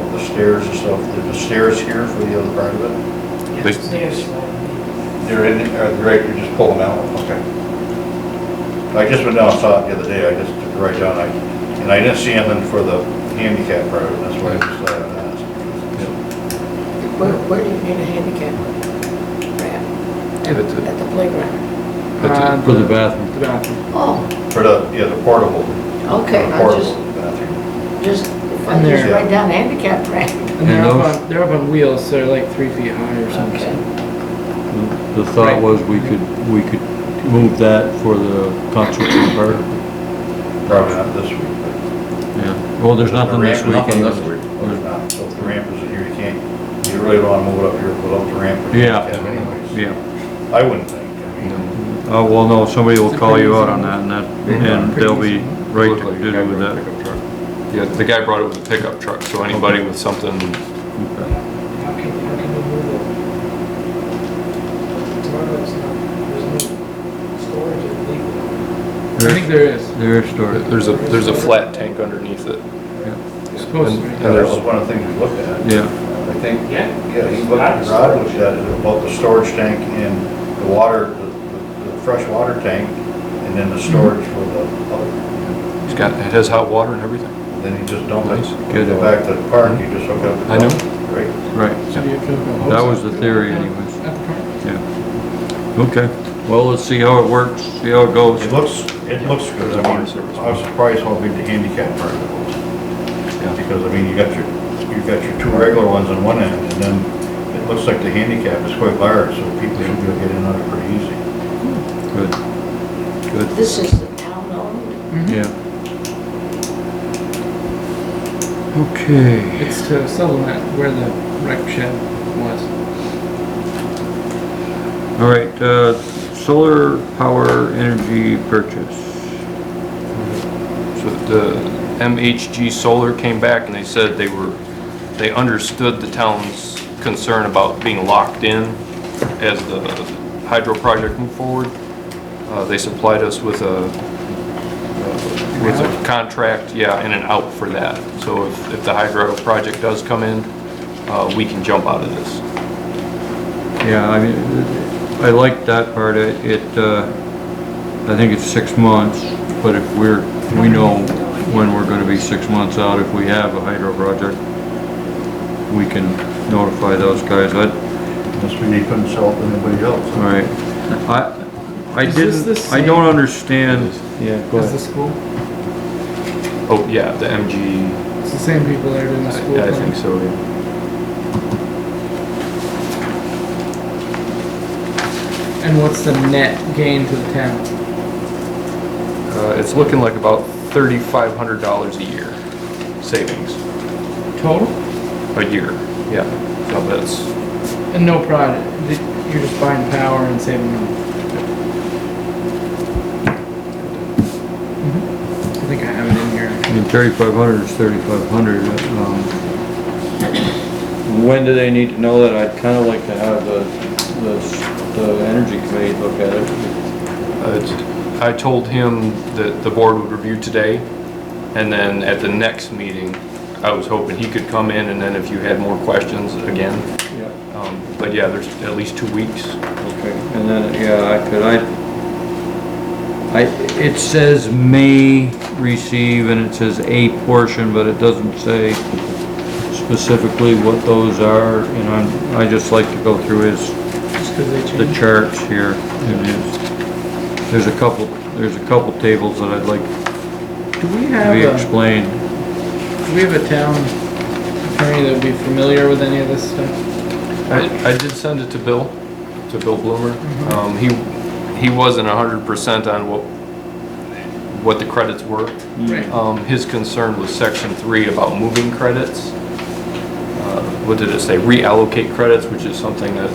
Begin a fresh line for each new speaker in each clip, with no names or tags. the stairs and stuff, there's the stairs here for the other part of it?
They-
There's one.
They're in,
uh,
or the director just pull them out? Okay. I just went down and saw it the other day, I just took it right down, I, and I didn't see anything for the handicap part of it, that's why I just thought I'd ask.
Where, where do you need a handicap ramp? At
At the-
at the playground?
That's it.
For the bathroom.
The bathroom.
Oh,
For the, yeah, the portable.
okay, I
Portable
just,
bathroom.
just, if I
And
just
there-
write down handicap ramp.
And they're
And
up
those-
on, they're up on wheels, so they're like three feet high or something.
Okay.
The- The thought was we could, we could move that for the concert and park.
Probably not this week.
Yeah. Well, there's nothing this week.
Nothing this
anyway.
week.
but there's not. So if the ramp isn't here, you can't, you really don't want to move it up here without the ramp. or
Yeah.
handicap anyways.
Yeah.
I wouldn't think, I mean,
Oh, well, no, somebody will call you out on that and that, and they'll be right to do with that.
Yeah, the guy brought it with a pickup truck, so anybody with something,
How can, how can you move it? Tomorrow it's not, there's no storage of people.
I think there is.
There's storage.
there's a, there's a flat tank underneath it.
Supposed to be.
And-
that was
uh,
and there's-
one of the things we looked at.
Yeah,
I think,
Yeah.
yeah, he looked, Rod looked at it, about the storage tank and the water, the- the the fresh water tank, and then the storage for the, other.
It's got, it has hot water and everything.
then you just dump it.
Nice.
Good.
Go back to the park, you just hook up. the
I know.
pump, Right?
right.
So you have to go
That
outside.
was the theory anyways.
At the front.
Yeah. Okay, well, let's see how it works, see how it goes.
It looks, it looks good, I mean, I was surprised how big the handicap part of it was. Because, I mean, you got your, you've got your two regular ones on one end, and then it looks like the handicap is quite large, so people should be able to get in on it pretty easy.
Good. Good,
This is the town owned,
Mm-hmm.
yeah. Okay,
It's to supplement where the rec shed was.
all right, uh, solar power energy purchase.
So the MHG Solar came back and they said they were, they understood the town's concern about being locked in as the hydro project moved forward. Uh, They supplied us with a, uh, with a contract, yeah, and an out for that. So if, if the hydro project does come in, uh, we can jump out of this.
Yeah, I mean, I like that part, It- it, uh, I think it's six months, but if we're, we know when we're gonna be six months out, if we have a hydro project, we can notify those guys, I,
Unless we need to consult anybody else.
all right. I, I
Is this
didn't,
the
I don't
same-
understand. Yeah,
Is the school?
Oh, yeah, the MG,
It's the same people that are doing the school.
I I
thing.
think so, yeah.
And what's the net gain to the town?
Uh, It's looking like about $3,500 a year savings.
Total?
A year, yeah. So that's,
And no product. You're just buying power and saving money. Mm-hmm. I think I have it in here.
I mean, thirty-five hundred is thirty-five hundred, um. When do they need to know that? I'd kinda like to have the, the, s- the energy committee look at it.
uh, it's- I told him that the board would review today, and then at the next meeting, I was hoping he could come in, and then if you had more questions, again.
Yeah.
Um, But yeah, there's at least two weeks.
Okay, and then, yeah, I could, I, I, it says may receive and it says a portion, but it doesn't say specifically what those are, and I'm, I just like to go through his
Just because they
the
changed.
charts here, it is, there's a couple, there's a couple tables that I'd like
Do we
to
have
be
a,
explained.
do we have a town attorney that would be familiar with any of this stuff?
I, I did send it to Bill, to Bill Bloomer. Um, he, he wasn't hundred percent on what, what the credits were.
Right.
Um, his concern was section three about moving credits. Uh, What did it say? Reallocate credits, which is something that,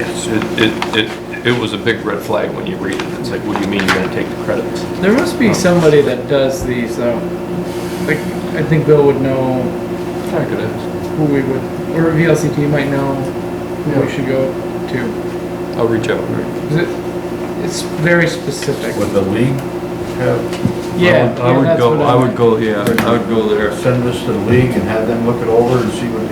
it, it, it, it was a big red flag when you read it. It's like, what do you mean you're gonna take the credits?
There must be somebody that does these though. Like, I think Bill would know
I could ask.
who we would, or VLCT might know who we should go to.
I'll reach out.
'Cause it, it's very specific.
Would the league have
Yeah,
I
yeah,
would
that's
go,
what I
I would
meant.
go, yeah, I would go there.
Send this to the league and have them look it over and see what